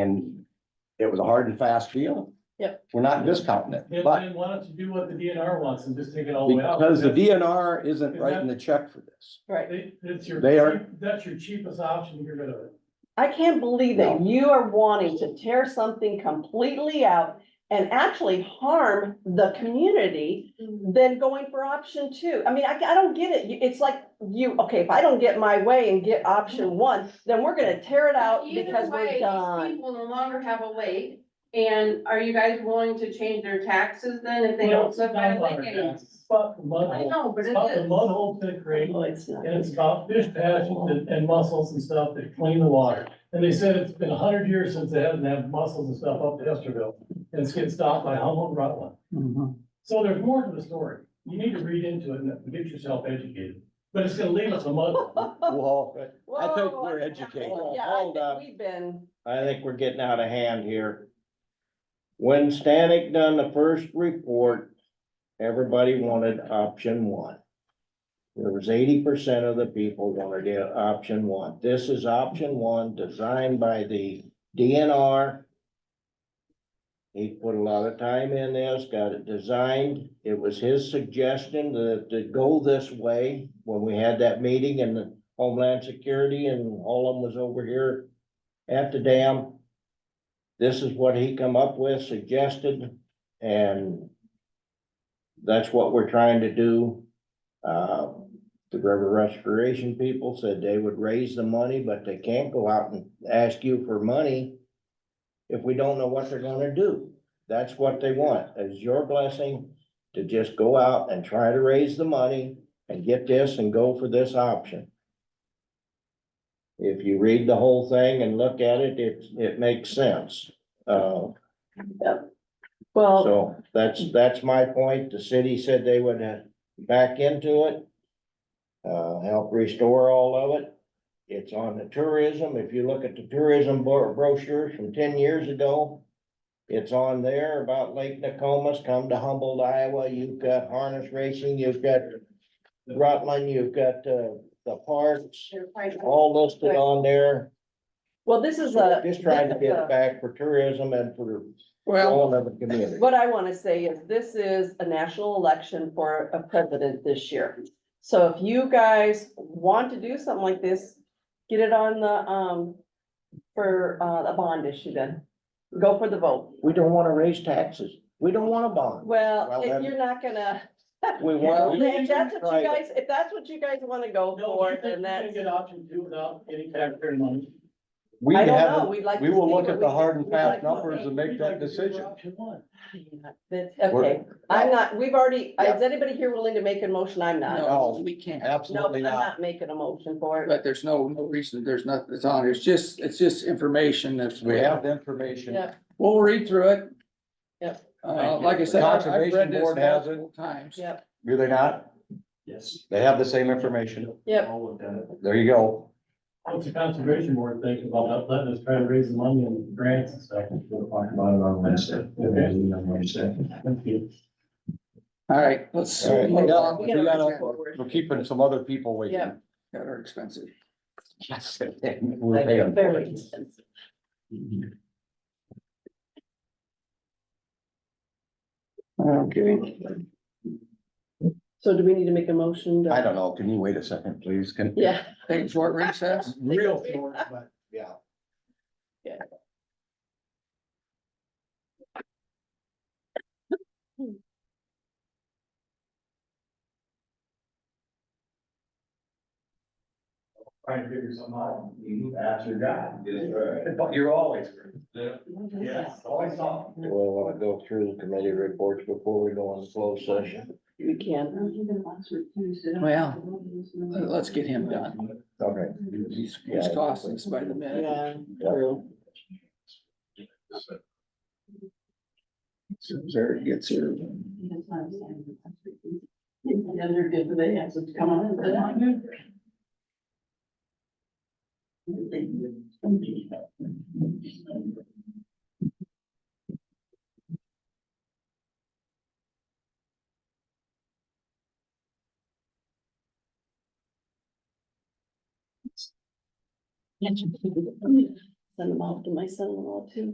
And it was a hard and fast deal. Yep. We're not discounting Then, it, but then why don't you do what the DNR wants and just take it all the way out? because the That's- DNR isn't writing the check for this. Right. they- That's your. They are- cheap- That's your cheapest option, to get rid of it. I can't believe that you are wanting to tear something completely out and actually harm the community than going for option two. I mean, I, I don't get it. You- It's like you, okay, if I don't get my way and get option one, then we're gonna tear it out because Either we're way, these done. people no longer have a lake, and are you guys willing to change their taxes then if they Well, don't it's subdivide not about lake our anymore? taxes. It's about the mud I hole. know, but It's it about the is. mud holes that create, Well, it's not. and it's about fish passions and, and mussels and stuff that clean the water. And they said it's been a hundred years since they haven't had mussels and stuff up to Esterville, and it's getting stopped by Humboldt and Rutland. Mm-hmm. So there's more to the story. You need to read into it and get yourself educated, but it's gonna leave us a mud. hole. Well, I think Whoa, we're I- educated. Yeah, Hold I on. think we've been, I think we're getting out of hand here. When Stanek done the first report, everybody wanted option one. There was eighty percent of the people wanted the option one. This is option one designed by the DNR. He put a lot of time in this, got it designed. It was his suggestion to, to go this way when we had that meeting and Homeland Security and all of them was over here at the dam. This is what he come up with, suggested, and that's what we're trying to do. Uh, the river restoration people said they would raise the money, but they can't go out and ask you for money if we don't know what they're gonna do. That's what they want, is your blessing to just go out and try to raise the money and get this and go for this option. If you read the whole thing and look at it, it, it makes sense. Uh, well. so that's, that's my point. The city said they would uh, back into it. Uh, help restore all of it. It's on the tourism. If you look at the tourism bro- brochures from ten years ago. It's on there about Lake Nokomis, come to Humboldt, Iowa. You've got harness racing, you've got Rutland, you've got, uh, the parks, They're probably- all listed on there. Well, this is a. Just trying to this is get a- it back for tourism and for Well, all of the community. What I want to say is this is a national election for a president this year. So if you guys want to do something like this, get it on the, um, for, uh, a bond issue then. Go for the vote. We don't wanna raise taxes. We don't want a bond. Well, Well, if then- you're not gonna, We want. if that's what Right. you guys, if that's what you guys want to go No, for, you think then you can that's, get option two without getting taxpayer money? we I don't know. haven't, We'd like. we to will see look what at the we can- hard and we'd like fast to- numbers and make that decision. Option one. That's- Okay, I'm not, we've already, is anybody here willing to make a motion? I'm not. No. No, we can't, No, Absolutely I'm not. not making a motion for it. but there's no, no reason, there's nothing that's on, it's just, it's just information that's. We have the information. Yeah. We'll read through it. Yep. Uh, like I said, I've I've Conservation read this Board has it. multiple times. Yep. Do they not? Yes. They have the same information. Yep. There you go. What's the conservation board thinking about not letting us try to raise the money and grants and stuff? We'll talk about it on Wednesday. Thank you. All right, let's. All right. move Yeah, on. We We gotta- forward. We're keeping some other people waiting. Got our expensive. Yes. We're paying. Very expensive. Okay, So do we need to make a motion? to- I don't know. Can you wait a second, please? Can, Yeah, take a short recess. real short, but Yeah. Trying to figure something out. That's your guy. Yes, right. But you're always. Yes, always on. We'll wanna go through the committee reports before we go on closed session. we can. Well, let's get him done. Okay. He's, he's costing us by the minute. Yeah. So Eric gets here. they're good for the answers to come on. send them off to my son-in-law too.